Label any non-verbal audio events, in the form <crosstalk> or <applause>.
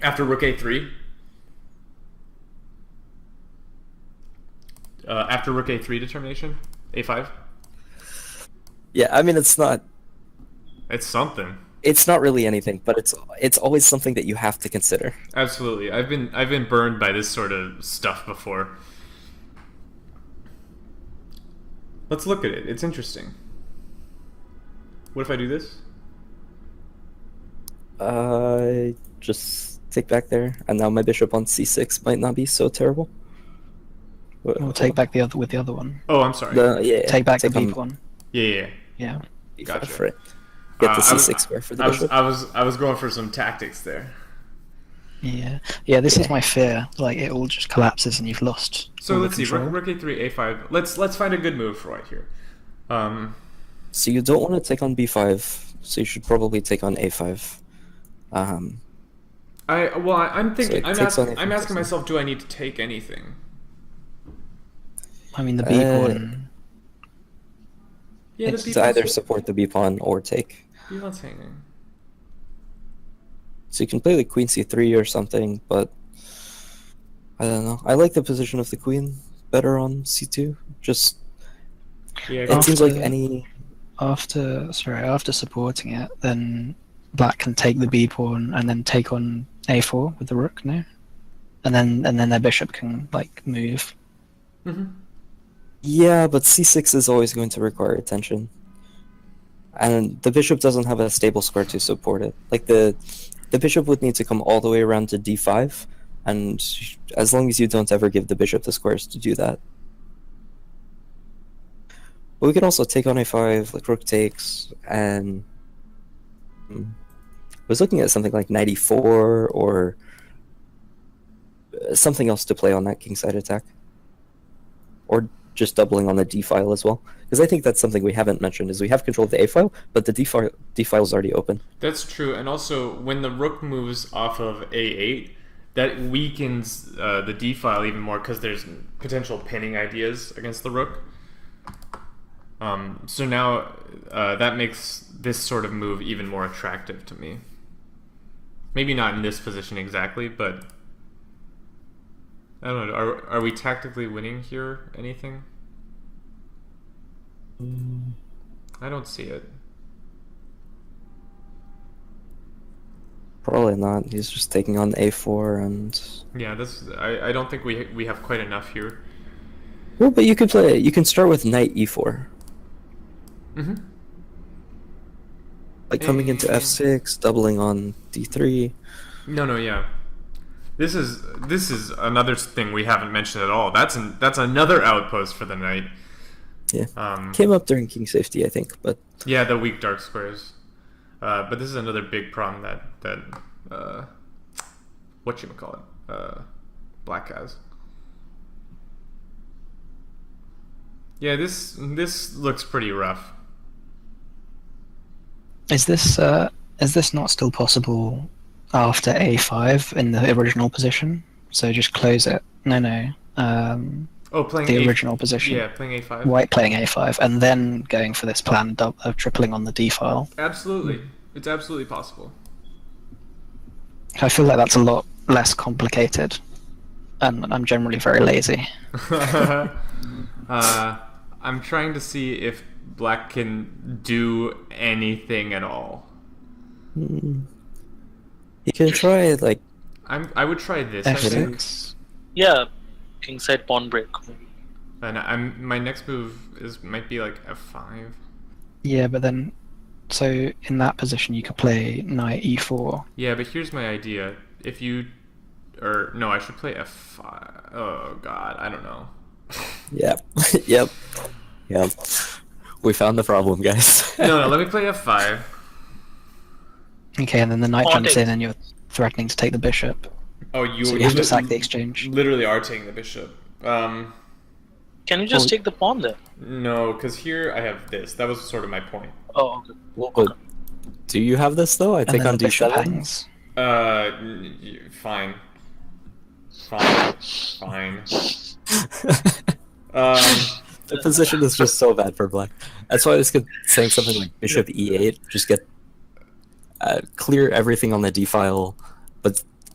After rook a3. Uh, after rook a3 determination, a5. Yeah, I mean it's not It's something. it's not really anything, but it's it's always something that you have to consider. Absolutely. I've been I've been burned by this sort of stuff before. Let's look at it. It's interesting. What if I do this? Uh, just take back there, and now my bishop on c6 might not be so terrible. Wha- We'll take back the other with the other one. Oh, I'm sorry. the yeah. Take back the on beef one. yeah, yeah. yeah. b5 Yeah. Gotcha. for it. Get Uh, the I was- c6 square for the I was, bishop. I was I was going for some tactics there. Yeah. Yeah, this Yeah. is my fear. Like it all just collapses and you've lost. So all the let's see. control. Rook, rook a3, a5. Let's let's find a good move for right here. Um, So you don't want to take on b5, so you should probably take on a5. Um, I well, I, I'm thinking. it I'm takes asking. on I'm a- asking myself, do I need to take anything? I mean the Uh, B pawn. Yeah, it's the to either b-pawn's- support the b pawn or take. b-pawn's hanging. So you can play like queen c3 or something, but I don't know. I like the position of the queen better on c2. Just Oh, Yeah, it seems like After- any After sorry, after supporting it, then black can take the B pawn and then take on A four with the rook, no? And then and then their bishop can like move. hmm Yeah, but c6 is always going to require attention. And the bishop doesn't have a stable square to support it. Like the the bishop would need to come all the way around to d5, and as long as you don't ever give the bishop the squares to do that. But we can also take on a5, like rook takes, and Hmm. I was looking at something like knight e4 or uh, something else to play on that kingside attack or just doubling on the D file as well? Because I think that's something we haven't mentioned is we have control of the A file, but the D file D file is already open. That's true, and also when the rook moves off of a8, that weakens uh, the d file even more because there's potential pinning ideas against the rook. Um, so now uh, that makes this sort of move even more attractive to me. Maybe not in this position exactly, but I don't know. Are are we tactically winning here? Anything? I don't see it. Probably not. He's just taking on A4 and Yeah, this I, I don't think we we have quite enough here. well, but you could play. You can start with Knight E E4, Mm-hmm. like coming into Eh. F6, doubling on D3. No, no, yeah. This is this is another thing we haven't mentioned at all. That's an, that's another outpost for the night. Yeah, Um, came up during King Safety, I think, but yeah, the weak dark squares. Uh, but this is another big problem that that uh, what you call it, uh, black has. Yeah, this this looks pretty rough. Is this uh is this not still possible after A five in the original position? So just close it. No no. Um Oh, playing the a, original position. Yeah, playing a five. White playing a5 and then going for this plan dou- of tripling on the d file. Absolutely, it's absolutely possible. I feel like that's a lot less complicated, and I'm generally very lazy. <laughs> uh, I'm trying to see if Black can do anything at all. mm, you can try like I'm, I would try this, I think, F6. Yeah, kingside pawn break. and I'm my next move is might be like f5. Yeah, but then, so in that position you could play knight e e4. Yeah, but here's my idea: if you, or no, I should play f5. Oh God, I don't know. yeah, <laughs> yep, yep. We found the problem, guys. <laughs> No, no, let me play f5. Okay, and then the knight Pawn jumps takes. in, and you're threatening to take the bishop, Oh, you, so you have to sack the exchange. literally are taking the bishop. Um, Can you just Oh. take the pawn there? no, because here I have this. That was sort of my point. Oh, okay. Well, but do you have this though? I And take then on the bishop D7. hangs. Uh, n- y- fine. Fine. Fine. Um, The position is just so bad for black. That's why I was con- saying something like E bishop e8, just get uh, clear everything on the d file, but